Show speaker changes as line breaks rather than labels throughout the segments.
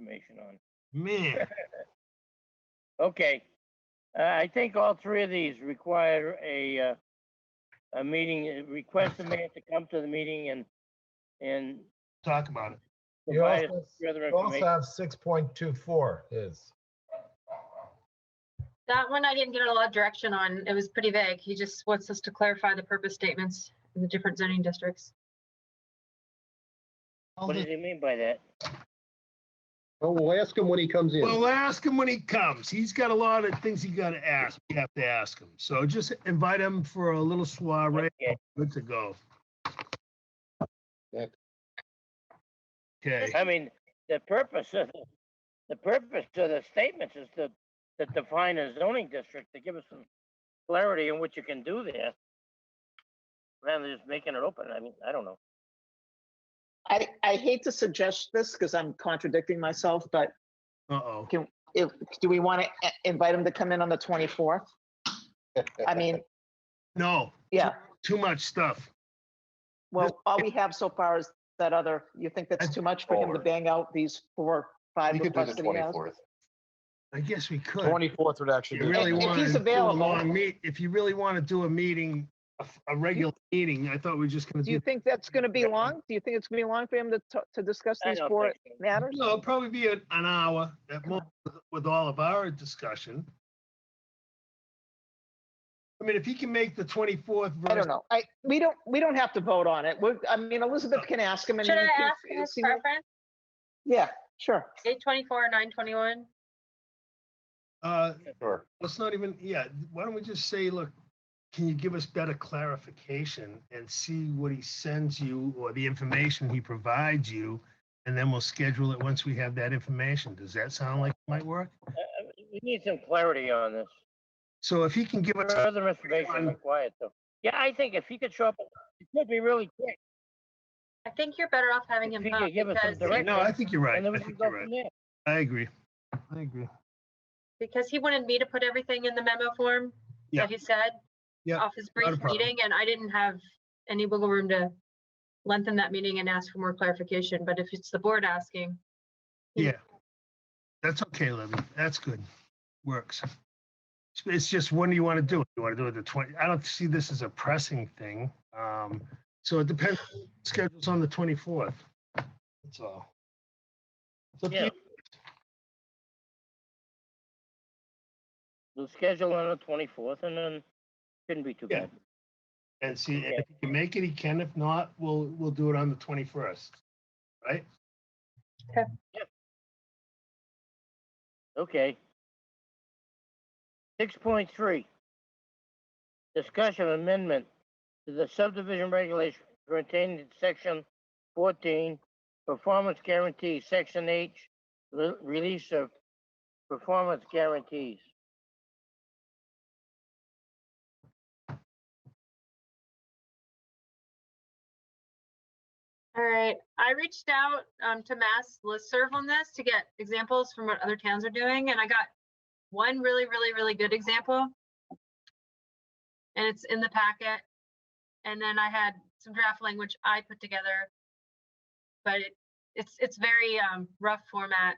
information on.
Man,
Okay. Uh, I think all three of these require a, uh, a meeting, uh, request the mayor to come to the meeting and, and
talk about it.
You
provide us
also,
further
you also
information.
have six point two four is,
That one I didn't get a lot of direction on. It was pretty vague. He just wants us to clarify the purpose statements in the different zoning districts.
I'll
What does
just-
he mean by that?
Well, we'll ask him when he comes in.
Well, ask him when he comes. He's got a lot of things he gotta ask. We have to ask him. So just invite him for a little soiree.
Okay.
Good to go.
Nick.
Okay,
I mean, the purpose of, the- the purpose of the statements is to, to define a zoning district, to give us some clarity in what you can do there. Rather than just making it open, I mean, I don't know.
I, I hate to suggest this because I'm contradicting myself, but
uh-oh.
if, do we want to invite him to come in on the 24th? I mean,
No,
yeah,
too much stuff.
well, all we have so far is that other, you think that's too much for him to
Forward.
bang out these four, five
We could do the
requests that he has?
twenty-fourth.
I guess we could.
Twenty-fourth would actually
If you
be.
really
If- if
want
he's
to do a
available.
long meet, if you really want to do a meeting, a, a regular meeting, I thought we were just gonna
Do you
do.
think that's going to be long? Do you think it's going to be long for him to, t- to discuss
I
these
don't
four
think so.
matters?
No, it'll probably be an an hour at most with- with all of our discussion. I mean, if he can make the twenty-fourth
I don't
versus
know. I, we don't, we don't have to vote on it. We're, I mean, Elizabeth can ask him and.
Should I
then he can
ask
f-
his
see what-
preference,
Yeah, sure.
eight twenty-four, nine twenty-one?
Uh,
Sure.
let's not even, yeah, why don't we just say, look, can you give us better clarification and see what he sends you or the information he provides you? And then we'll schedule it once we have that information. Does that sound like it might work?
Uh, uh, We need some clarity on this.
So if he can give us,
Further information
Everyone-
required, though. Yeah, I think if he could show up, it could be really quick.
I think you're better off having
If
him
you
come
could give us some
because,
direct-
no, I think you're right.
And then we
I
can
think
go
you're right.
from there.
I agree. I agree.
because he wanted me to put everything in the memo form
Yeah.
that he said
Yeah,
off his
not a
brief
problem.
meeting, and I didn't have any wiggle room to lengthen that meeting and ask for more clarification, but if it's the board asking,
Yeah. That's okay, Libby. That's good. Works. It's- It's just when do you want to do it? You want to do it the twenty, I don't see this as a pressing thing. Um, so it depends, schedule's on the twenty-fourth. That's all. It's up to
Yeah.
you.
We'll schedule on the twenty-fourth and then shouldn't be too
Yeah.
bad.
And see, and
Okay.
if he can make it, he can. If not, we'll, we'll do it on the twenty-first.
Okay. Six point three. Discussion amendment to the subdivision regulation contained in section fourteen, performance guarantee, section H, re- release of performance guarantees.
All right, I reached out um, to Mass Listserv on this to get examples from what other towns are doing, and I got one really, really, really good example. And it's in the packet. And then I had some draft language I put together. But it, it's, it's very um, rough format.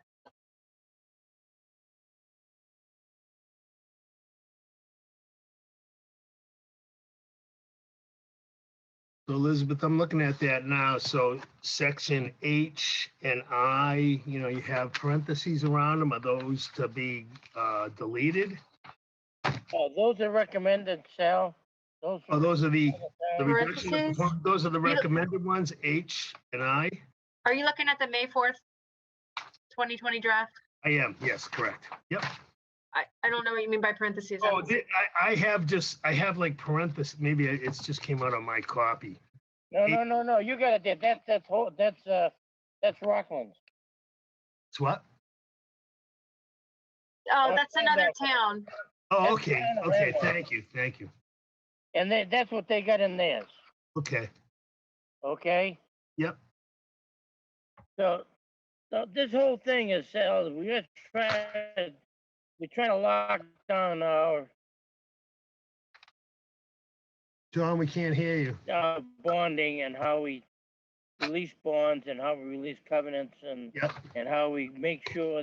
So Elizabeth, I'm looking at that now. So section H and I, you know, you have parentheses around them. Are those to be, uh, deleted?
Uh, those are recommended, Sal. Those.
Oh, those are the, the
are-
reduction, of
Parentheses.
propo- those are the
We don't-
recommended ones, H and I?
Are you looking at the May 4th, 2020 draft?
I am, yes, correct. Yep.
I, I don't know what you mean by parentheses. I
Oh,
don't-
di- I, I have just, I have like parentheses, maybe it- it's just came out on my copy.
No, no, no, no, you got it, there. that's, that's whole, that's, uh, that's Rockland.
It's what?
Oh,
oh,
that's
I
another
know.
town.
Oh,
That's
okay,
kind of
okay,
random.
thank you, thank you.
And they, that's what they got in theirs,
Okay,
okay?
Yep.
So, so this whole thing is, uh, we're trying, to- we're trying to lock down our,
John, we can't hear you.
our bonding and how we release bonds and how we release covenants and,
Yep.
and how we make sure